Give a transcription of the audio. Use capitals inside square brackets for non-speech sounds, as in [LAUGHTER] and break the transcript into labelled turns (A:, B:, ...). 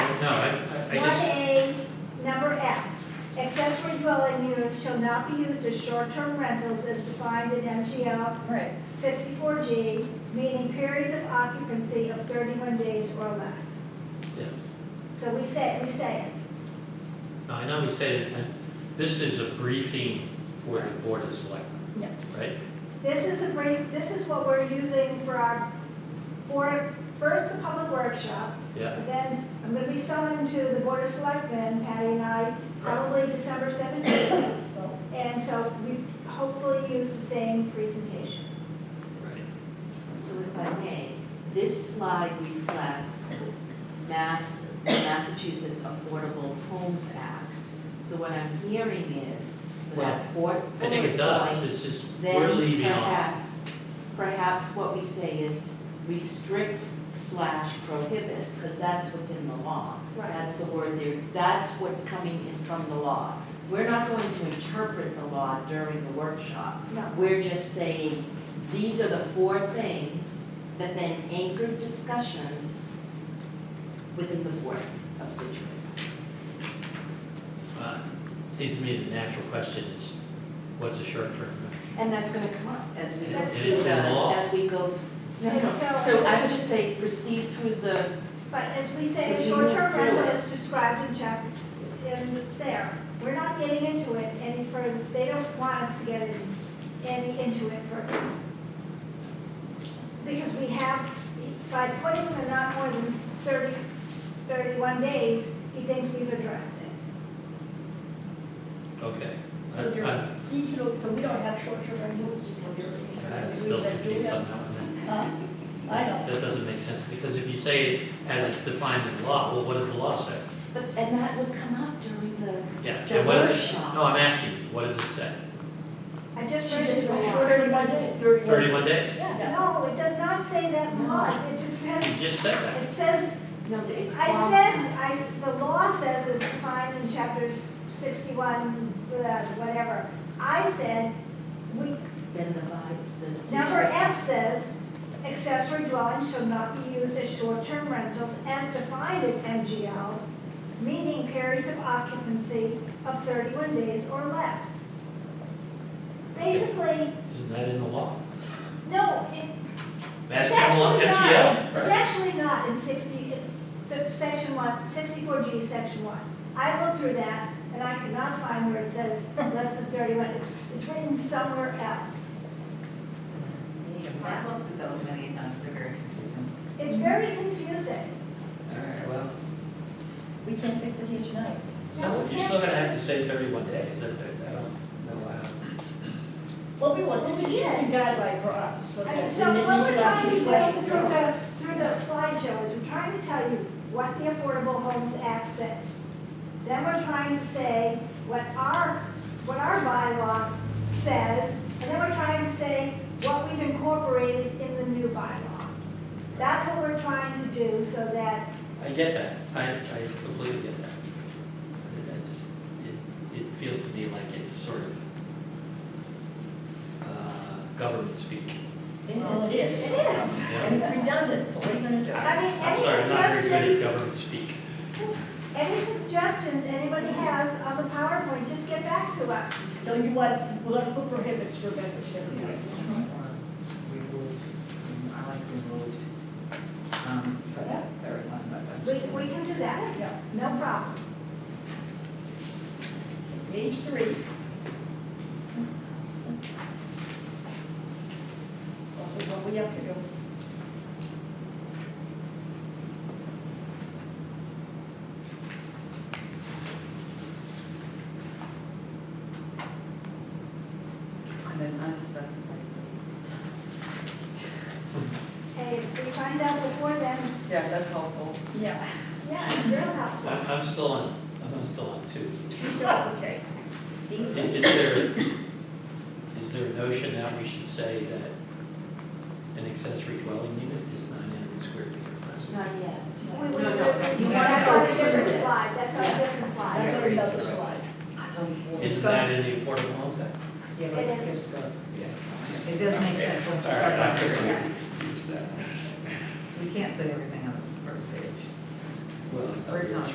A: No, I, I- I
B: One
A: just,
B: A, number F, accessory dwelling units shall not be used as short-term rentals as defined in MGL
C: Right.
B: sixty-four G, meaning periods of occupancy of thirty-one days or less.
A: yeah,
B: So we say, we say it.
A: No, I know you say, that, but this is a briefing for the board of selectmen.
C: Yeah.
A: Right?
B: This is a brief, this is what we're using for our, for, first the public workshop,
A: Yeah,
B: but then I'm gonna be selling to the board of selectmen, Patty and I, probably December seventeenth. And so we hopefully use the same presentation.
A: right.
D: So if I may, this slide reflects Mass, Massachusetts Affordable Homes Act. So what I'm hearing is
A: Well,
D: that for.
A: I think it does, it's just, we're
D: Then
A: leaving off.
D: perhaps, perhaps what we say is restricts slash prohibits, because that's what's in the law. That's the word there, that's what's coming in from the law. We're not going to interpret the law during the workshop.
B: No,
D: We're just saying, these are the four things that then anchor discussions within the board of Situate.
A: Uh, Seems to me the natural question is, what's a short-term rental?
D: And that's gonna come up as we go
B: That's
D: through
A: in
D: the,
A: law.
D: as we go. No, no,
B: So-
D: so I would just say proceed through the,
B: but as we say,
D: As
B: the
D: we move
B: short-term rental
D: through it.
B: is described in chapter, in there. We're not getting into it any further, they don't want us to get in- any into it further. Because we have, by putting the not more than 30, 31 days, he thinks we've addressed it.
A: Okay.
C: So
A: I-
C: there's
A: I-
C: seasonal, so we don't have short-term rentals, just have your seasonal.
A: I'm
C: rentals.
A: still
C: We've been doing
A: confused on that one.
C: that. Huh? I know.
A: That doesn't make sense, because if you say it as it's defined in the law, well, what does the law say?
D: but, and that would come up during the,
A: Yeah,
D: The
A: and what does it,
D: workshop.
A: no, I'm asking, you, what does it say?
B: I just
C: She
B: read
C: just
B: it.
C: went
B: before.
C: shorter than my days.
A: Thirty-one days?
C: Yeah.
B: No, it does not say that
D: No.
B: much, it just says,
A: You just said that.
B: it says,
D: no, the- it's.
B: I
D: all-
B: said, I, s- the law says it's defined in chapters sixty-one, uh, whatever. I said, we,
D: Then the vibe, the.
B: number
D: Situate-
B: F says, accessory dwellings shall not be used as short-term rentals as defined in MGL, meaning periods of occupancy of thirty-one days or less. Basically,
A: Isn't that in the law?
B: no, it,
A: That's
B: It's
A: the law,
B: actually
A: MGL,
B: not, it's
A: right?
B: actually not in sixty, it's, the section one, sixty-four G, section one. I looked through that and I could not find where it says less than thirty-one, it's, it's written somewhere else.
E: I've looked at those many times, they're very confusing.
B: It's very confusing.
A: All right, well,
C: We can't fix it here tonight.
A: so you're still gonna have to say thirty-one days, that, that, I don't know how.
C: Well, we want, this is just a guideline for us, so
B: I mean,
C: that.
B: so
C: we
B: what we're
C: can
B: trying
C: ask
B: to
C: these
B: do
C: questions
B: through
C: for
B: the,
C: us.
B: through the slideshow is we're trying to tell you what the Affordable Homes Act says. Then we're trying to say what our, what our bylaw says, and then we're trying to say what we've incorporated in the new bylaw. That's what we're trying to do so that,
A: I get that, I, I completely get that. I- I just, it, it feels to me like it's sort of, uh, government speak.
C: Well, it
B: it
C: is.
B: is.
A: Yeah.
C: And it's redundant, but what are you gonna do?
B: I
A: I'm
B: mean, any
A: sorry, I'm not very good at
B: suggestions,
A: government speak.
B: any suggestions anybody has on the PowerPoint, just get back to us.
C: So you want, we'll put prohibits for membership.
E: Removed, um, I like removed, um, for that very one, but that's.
B: We, we can do that,
C: Yeah.
B: no problem.
C: Page three. This is what we have to do.
E: And then unspecified.
B: Hey, if we find out before then,
E: Yeah, that's helpful.
C: Yeah. [LAUGHS]
B: yeah, it's real helpful.
A: I'm, I'm still on, I'm still on two.
C: Okay.
A: I- Is there, is there a notion that we should say that an accessory dwelling unit is nine hundred square feet or less?
D: Not yet.
B: We, we,
D: No, no,
B: we-
D: you
B: that's
D: gotta
B: on
D: go
B: a
D: through
B: different
D: this.
B: slide, that's on a different
C: That's
B: slide.
C: already another slide.
E: That's helpful.
A: Isn't that in the Affordable Homes Act?
E: Yeah, but
B: It
E: it
B: is.
E: is good.
A: Yeah.
E: It does make sense when you
A: All
E: start
A: right, I
E: out
A: figured
E: here.
A: we'd use that.
E: We can't say everything on the first page.
A: Well, I thought we were
E: First time.